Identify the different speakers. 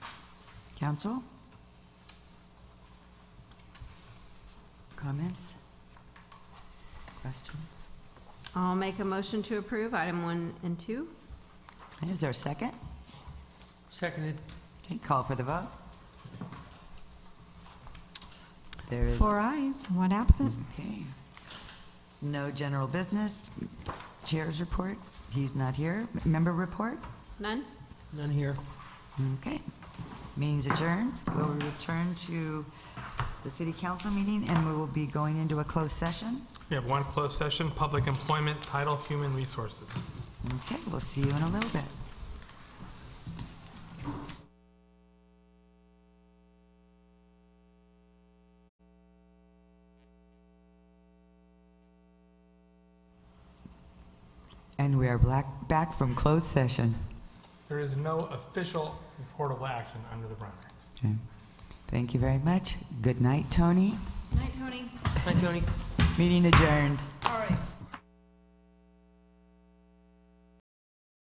Speaker 1: Council? Comments? Questions?
Speaker 2: I'll make a motion to approve item one and two.
Speaker 1: Is there a second?
Speaker 3: Seconded.
Speaker 1: Okay, call for the vote. There is,
Speaker 4: Four ayes, one absent.
Speaker 1: okay. No general business. Chair's report, he's not here. Member report?
Speaker 2: None?
Speaker 3: None here.
Speaker 1: Okay. Meeting's adjourned. We'll return to the city council meeting, and we will be going into a closed session.
Speaker 5: We have one closed session, public employment, title, human resources.
Speaker 1: Okay, we'll see you in a little bit. And we are black, back from closed session.
Speaker 5: There is no official reportable action under the Brown Act.
Speaker 1: Okay. Thank you very much. Good night, Tony.
Speaker 2: Night, Tony.
Speaker 3: Hi, Tony.
Speaker 1: Meeting adjourned.
Speaker 2: All right.